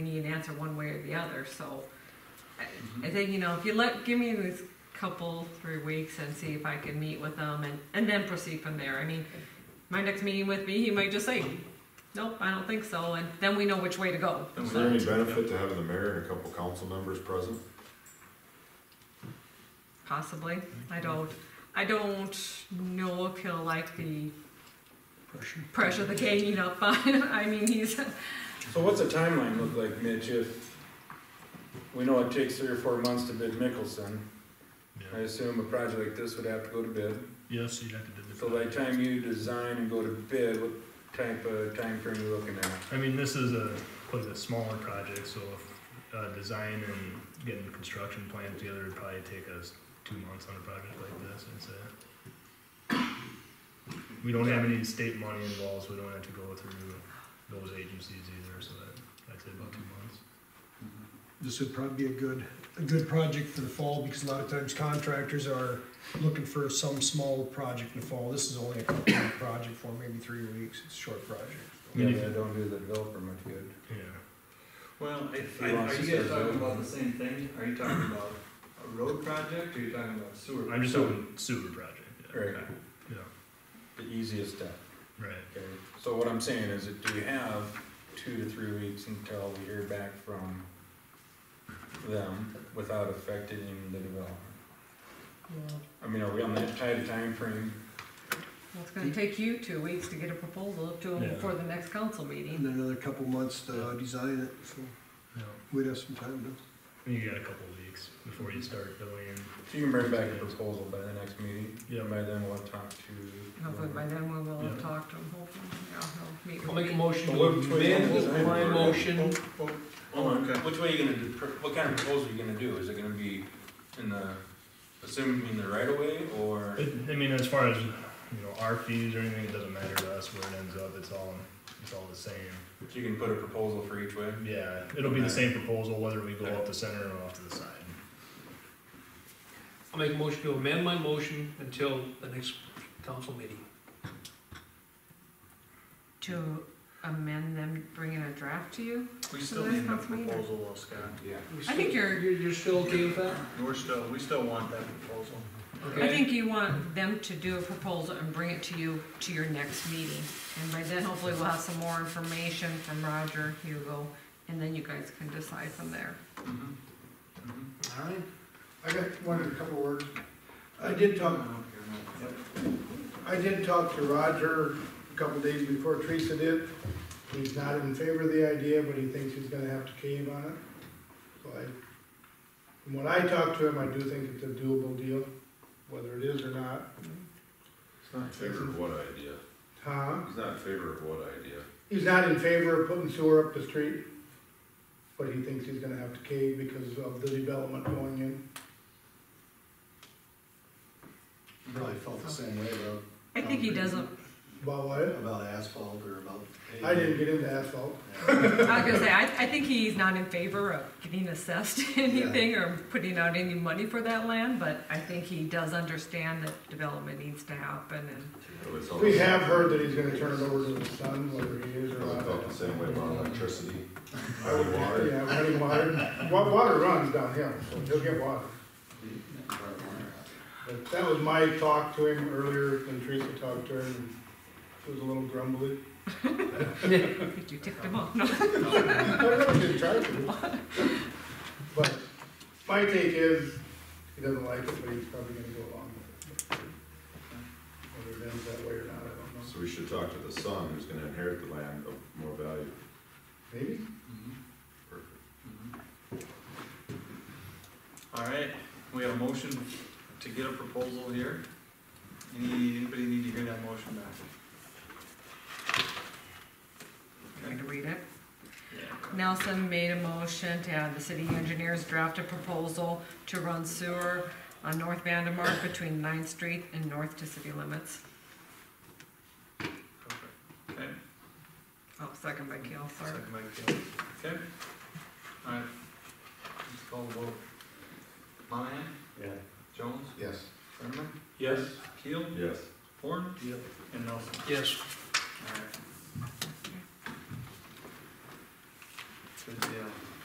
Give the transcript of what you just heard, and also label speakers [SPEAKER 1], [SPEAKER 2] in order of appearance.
[SPEAKER 1] you need an answer one way or the other, so. I- I think, you know, if you let, give me this couple, three weeks and see if I can meet with them and, and then proceed from there. I mean, my next meeting with me, he might just say, nope, I don't think so, and then we know which way to go.
[SPEAKER 2] Is there any benefit to having the mayor and a couple council members present?
[SPEAKER 1] Possibly. I don't, I don't know if he'll like the pressure the ganging up on. I mean, he's,
[SPEAKER 3] So what's the timeline look like, Mitch, if we know it takes three or four months to bid Mickelson? I
[SPEAKER 4] Yeah.
[SPEAKER 3] assume a project like this would have to go to bid.
[SPEAKER 4] Yes, you'd have to do the.
[SPEAKER 3] So by the time you design and go to bid, what type of timeframe are you looking at?
[SPEAKER 4] I mean, this is a, was a smaller project, so, uh, design and getting the construction plans together would probably take us two months on a project like this, I'd say. We don't have any state money involved, so we don't have to go through those agencies either, so that, I'd say about two months.
[SPEAKER 5] This would probably be a good, a good project for the fall, because a lot of times contractors are looking for some small project in the fall. This is only a couple week project for maybe three weeks, it's a short project.
[SPEAKER 4] Yeah.
[SPEAKER 3] Maybe I don't do the developer much good.
[SPEAKER 4] Yeah.
[SPEAKER 6] Well, if,
[SPEAKER 3] He
[SPEAKER 6] I-
[SPEAKER 3] wants
[SPEAKER 6] are
[SPEAKER 3] to
[SPEAKER 6] you guys
[SPEAKER 3] start
[SPEAKER 6] talking
[SPEAKER 3] building.
[SPEAKER 6] about the same thing? Are you talking about a road project, or are you talking about sewer?
[SPEAKER 4] I'm just hoping sewer project, yeah.
[SPEAKER 3] Right.
[SPEAKER 4] okay,
[SPEAKER 3] The easiest step,
[SPEAKER 4] Right.
[SPEAKER 3] okay? So what I'm saying is, that do we have two to three weeks until we hear back from them without affecting the developer?
[SPEAKER 1] well,
[SPEAKER 3] I mean, are we on that tight a timeframe?
[SPEAKER 1] it's gonna take you two weeks to get a proposal up to him
[SPEAKER 4] Yeah.
[SPEAKER 1] before the next council meeting.
[SPEAKER 5] And then another couple months to uh, design it, so
[SPEAKER 4] Yeah,
[SPEAKER 5] we'd have some time
[SPEAKER 4] you got a couple of weeks before you start going
[SPEAKER 3] So you can bring back a proposal by the next meeting?
[SPEAKER 4] Yeah.
[SPEAKER 3] And By then we'll talk to.
[SPEAKER 1] Hopefully by then we will have
[SPEAKER 4] Yeah.
[SPEAKER 1] talked to him, hopefully, yeah, he'll meet with
[SPEAKER 7] I'll
[SPEAKER 1] me.
[SPEAKER 7] make a motion to
[SPEAKER 3] Well, which way you gonna
[SPEAKER 7] amend
[SPEAKER 3] design
[SPEAKER 7] my
[SPEAKER 3] it?
[SPEAKER 6] Oh,
[SPEAKER 7] motion.
[SPEAKER 3] Hold on, which way are you gonna, do- what kind of proposal are you gonna do? Is it gonna be in the, assuming in the right of way or?
[SPEAKER 4] It, I mean, as far as, you know, our fees or anything, it doesn't matter to us where it ends up, it's all, it's all the same.
[SPEAKER 3] You can put a proposal for each way?
[SPEAKER 4] Yeah, it'll be the same proposal whether we go up the center or off to the side.
[SPEAKER 7] I'll make a motion to amend my motion until the next council meeting.
[SPEAKER 1] To amend them, bringing a draft to you?
[SPEAKER 6] We
[SPEAKER 1] still need a proposal,
[SPEAKER 6] Scott.
[SPEAKER 3] Yeah.
[SPEAKER 7] We
[SPEAKER 1] I think
[SPEAKER 7] still-
[SPEAKER 1] you're-
[SPEAKER 7] You're still okay with that?
[SPEAKER 6] We're still, we still want that proposal.
[SPEAKER 1] I think you want them to do a proposal and bring it to you, to your next meeting. And by then hopefully we'll have some more information from Roger, Hugo, and then you guys can decide from there.
[SPEAKER 3] Mm-hmm.
[SPEAKER 7] All right.
[SPEAKER 8] I got one, a couple words. I did talk, I did talk to Roger a couple days before Teresa did. He's not in favor of the idea, but he thinks he's gonna have to cave on it. So I, from what I talked to him, I do think it's a doable deal, whether it is or not.
[SPEAKER 3] It's not
[SPEAKER 2] Favor of what idea?
[SPEAKER 8] Huh?
[SPEAKER 2] He's not in favor of what idea?
[SPEAKER 8] He's not in favor of putting sewer up the street, but he thinks he's gonna have to cave because of the development going in.
[SPEAKER 9] Probably felt the same way about,
[SPEAKER 1] I think he doesn't,
[SPEAKER 8] About what?
[SPEAKER 9] about asphalt or about.
[SPEAKER 8] I didn't get into asphalt.
[SPEAKER 1] I was gonna say, I, I think he's not in favor of getting assessed anything or putting out any money for that land, but I think he does understand that development needs to happen and,
[SPEAKER 2] Well, it's all the
[SPEAKER 8] We
[SPEAKER 2] same-
[SPEAKER 8] have heard that he's gonna turn it over to his son, whether he is or
[SPEAKER 2] well, I
[SPEAKER 8] not.
[SPEAKER 2] felt the same way about electricity,
[SPEAKER 8] I would,
[SPEAKER 2] water.
[SPEAKER 8] yeah, running water, Wa- water runs downhill, so he'll get water. But that was my talk to him earlier, when Teresa talked to him, it was a little grumbly.
[SPEAKER 1] you ticked him off. No,
[SPEAKER 8] I really didn't try to. But my take is, he doesn't like it, but he's probably gonna go along with it. Whether it ends that way or not, I don't know,
[SPEAKER 2] so we should talk to the son who's gonna inherit the land of more value.
[SPEAKER 8] maybe?
[SPEAKER 6] Mm-hmm.
[SPEAKER 3] Mm-hmm.
[SPEAKER 6] All right, we have a motion to get a proposal here. Any, anybody need to hear that motion back?
[SPEAKER 1] Trying to read it. Nelson made a motion to have the city engineers draft a proposal to run sewer on North Vandemark between Ninth Street and north to city limits.
[SPEAKER 6] Perfect. Okay.
[SPEAKER 1] Oh, second by Keel, sorry.
[SPEAKER 6] Second by Kelly. Okay. All right. Let's call the vote. Monahan?
[SPEAKER 9] Yeah.
[SPEAKER 6] Jones?
[SPEAKER 8] Yes.
[SPEAKER 6] Brenneman?
[SPEAKER 3] Yes.
[SPEAKER 6] Keel?
[SPEAKER 2] Yes.
[SPEAKER 6] Horn?
[SPEAKER 7] Yep.
[SPEAKER 6] And Nelson.
[SPEAKER 7] Yes.